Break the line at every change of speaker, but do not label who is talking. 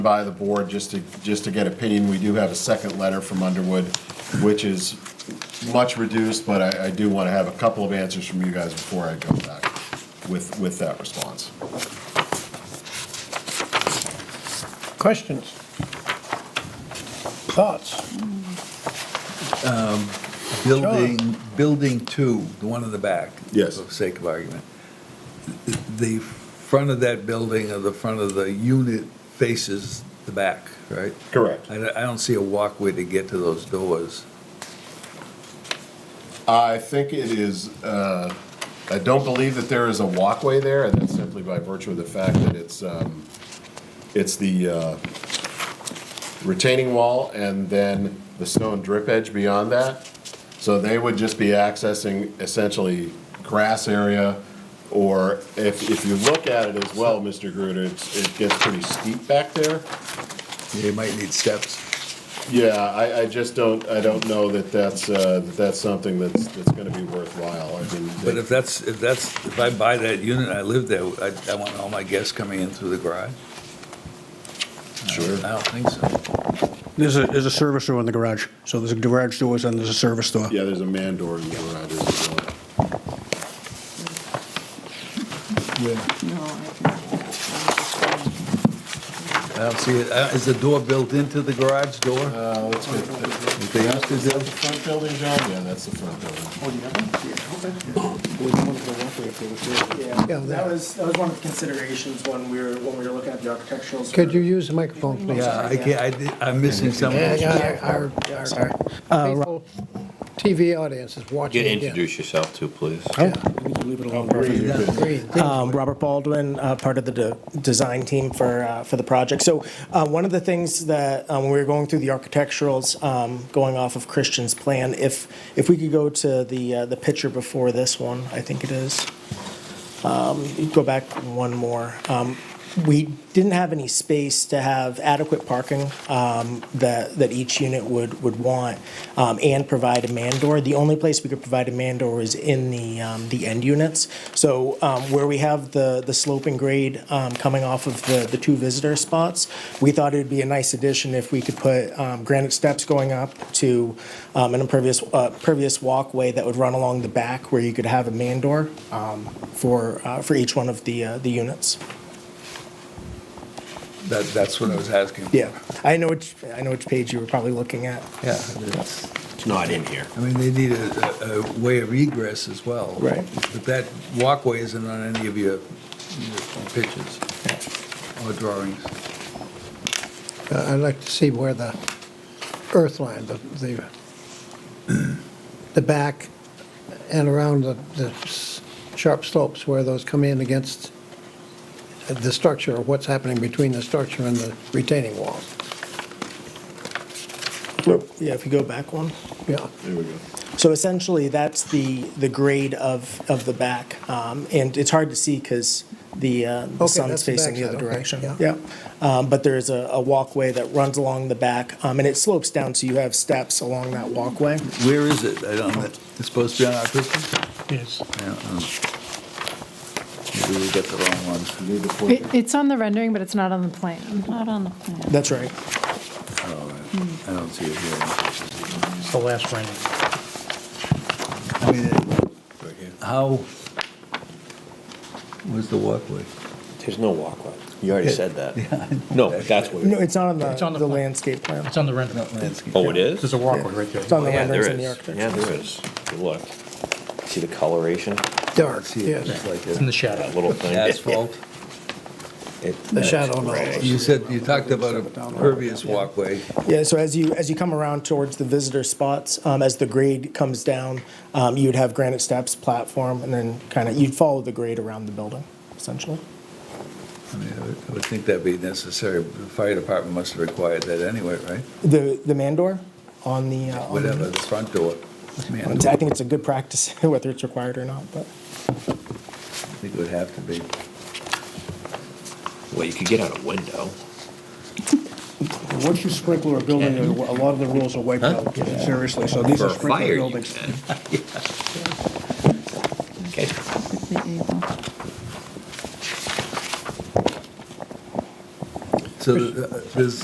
by the board just to, just to get opinion. We do have a second letter from Underwood, which is much reduced, but I, I do want to have a couple of answers from you guys before I go back with, with that response.
Questions? Thoughts?
Building, building two, the one in the back.
Yes.
For the sake of argument. The front of that building or the front of the unit faces the back, right?
Correct.
I, I don't see a walkway to get to those doors.
I think it is, uh, I don't believe that there is a walkway there, and that's simply by virtue of the fact that it's, um, it's the uh, retaining wall and then the stone drip edge beyond that. So they would just be accessing essentially grass area, or if, if you look at it as well, Mr. Gruder, it's- it gets pretty steep back there.
You might need steps.
Yeah, I, I just don't, I don't know that that's, uh, that that's something that's, that's gonna be worthwhile. I mean,
But if that's, if that's, if I buy that unit, I live there, I, I want all my guests coming in through the garage.
Sure.
I don't think so.
There's a, there's a service door in the garage. So there's a garage doors and there's a service door.
Yeah, there's a man door in the garage as well.
No, I
I don't see it. Uh, Is the door built into the garage door?
Uh, let's get the,
They used to
is that
do-
the front building, John? Yeah, that's the front building.
Yeah,
Yeah, that
that-
was, that was one of the considerations when we were, when we were looking at the architectural.
Could
sort
you
of-
use the microphone, please?
Yeah, I can't, I did- I'm missing something.
Yeah, yeah, Our
Uh,
our faithful TV audience is watching
You
again.
introduce yourself too, please.
Yeah,
Oh,
Agreed.
agree.
Um, Robert Baldwin, uh, part of the de- design team for, uh, for the project. So uh, one of the things that, um, when we were going through the architecturals, um, going off of Christian's plan, if, if we could go to the, uh, the picture before this one, I think it is. Um, you Go back one more. Um, We didn't have any space to have adequate parking um, that, that each unit would, would want um, and provide a man door. The only place we could provide a man door is in the, um, the end units. So um, where we have the, the sloping grade um, coming off of the, the two visitor spots, we thought it would be a nice addition if we could put um, granite steps going up to um, an impervious, uh, pervious walkway that would run along the back where you could have a man door um, for, uh, for each one of the, uh, the units.
That, that's what I was asking.
Yeah, I know which, I know which page you were probably looking at.
Yeah, it's-
It's not in here.
I mean, they need a, a- a way of egress as well.
Right.
But that walkway isn't on any of your your pictures or drawings.
I'd like to see where the earth line, the, the, the back and around the, the s- sharp slopes where those come in against the structure, or what's happening between the structure and the retaining wall.
Yeah, if you go back one.
Yeah,
There we go.
So essentially, that's the, the grade of, of the back. Um, And it's hard to see because the uh, the
Okay,
sun's
that's the
facing the other
backside, okay,
direction.
yeah.
Yeah. Um, But there is a a walkway that runs along the back, um, and it slopes down, so you have steps along that walkway.
Where is it? I don't, it's supposed to be on our picture?
Yes.
Yeah, um, Maybe we got the wrong ones.
You need the fourth-
It- It's on the rendering, but it's not on the plan.
Not on the plan.
That's right.
oh, I don't see it here.
It's the last rendering.
I mean, it- how, where's the walkway?
There's no walkway. You already said that. No, but that's where.
No, it's not on
It's on
the
the
the
plan.
landscape plan.
on the rendering.
Not landscape.
Oh, it is?
a walkway right
It's on the
Yeah,
renderings
there
and the
is.
architecture.
Yeah, there is. Good Look, see the coloration,
Dark,
See, it,
yes,
it's like a
that little thing?
asphalt.
It-
the shadow on those.
You said, you talked about a pervious walkway.
Yeah, so as you, as you come around towards the visitor spots, um, as the grade comes down, um, you'd have granite steps, platform, and then kind of, you'd follow the grade around the building, essentially.
I mean, I would- I would think that'd be necessary. The fire department must have required that anyway, right?
The, the mandor on the, uh, on
Whatever,
the-
the front door. Man,
on the- I think it's a good practice, whether it's required or not, but.
I think it would have to be.
Well, you could get out a window.
Once you sprinkle a building, a lot of the rules are wiped out, seriously, so
For a fire, you can. Okay,
Would be able.
So uh, there's